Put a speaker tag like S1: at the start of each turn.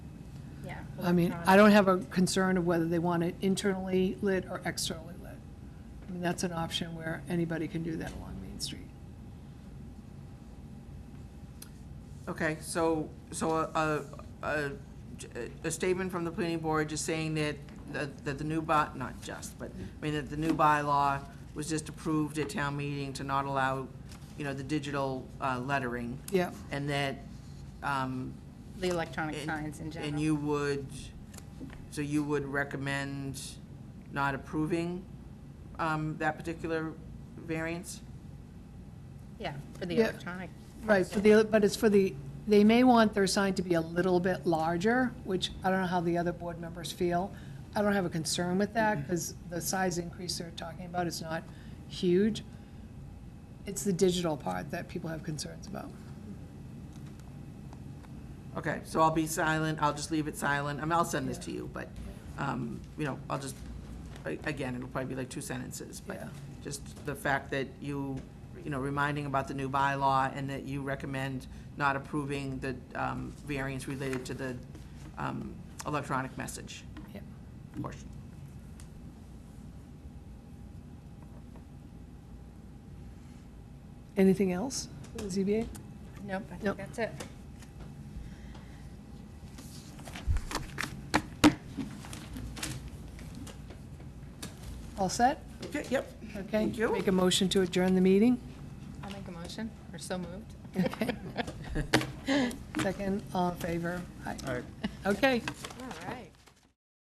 S1: I mean, I don't have a concern of whether they want it internally lit or externally lit. I mean, that's an option where anybody can do that along Main Street.
S2: Okay, so, so a, a- a, a statement from the planning board just saying that, that that the new by, not just, but, I mean, that the new bylaw was just approved at town meeting to not allow, you know, the digital uh, lettering,
S1: Yeah,
S2: and that, um.
S3: The electronic
S2: and-
S3: signs in general.
S2: And you would, so you would recommend not approving, um, that particular variance?
S3: Yeah, for the
S1: Yeah.
S3: electronic.
S1: right, for the, but it's for the, they may want their sign to be a little bit larger, which I don't know how the other board members feel. I don't have a concern with
S2: Mm-hmm.
S1: that, because the size increase they're talking about is not huge. It's the digital part that people have concerns about.
S2: Okay, so I'll be silent, I'll just leave it silent, I mean, I'll send this to you, but, um, you know, I'll just, a- again, it'll probably be like two sentences, but
S1: Yeah.
S2: just the fact that you, you know, reminding about the new bylaw and that you recommend not approving the, um, variance related to the, um, electronic message
S1: Yeah.
S2: portion.
S1: Anything else, for the ZBA?
S3: Nope, I think
S1: Nope.
S3: that's it.
S1: All set?
S2: Okay, yep.
S1: Okay.
S2: Thank you.
S1: Make a motion to adjourn the meeting.
S3: I'll make a motion, or so moved.
S1: Okay. Second, all in favor? Aye. Okay,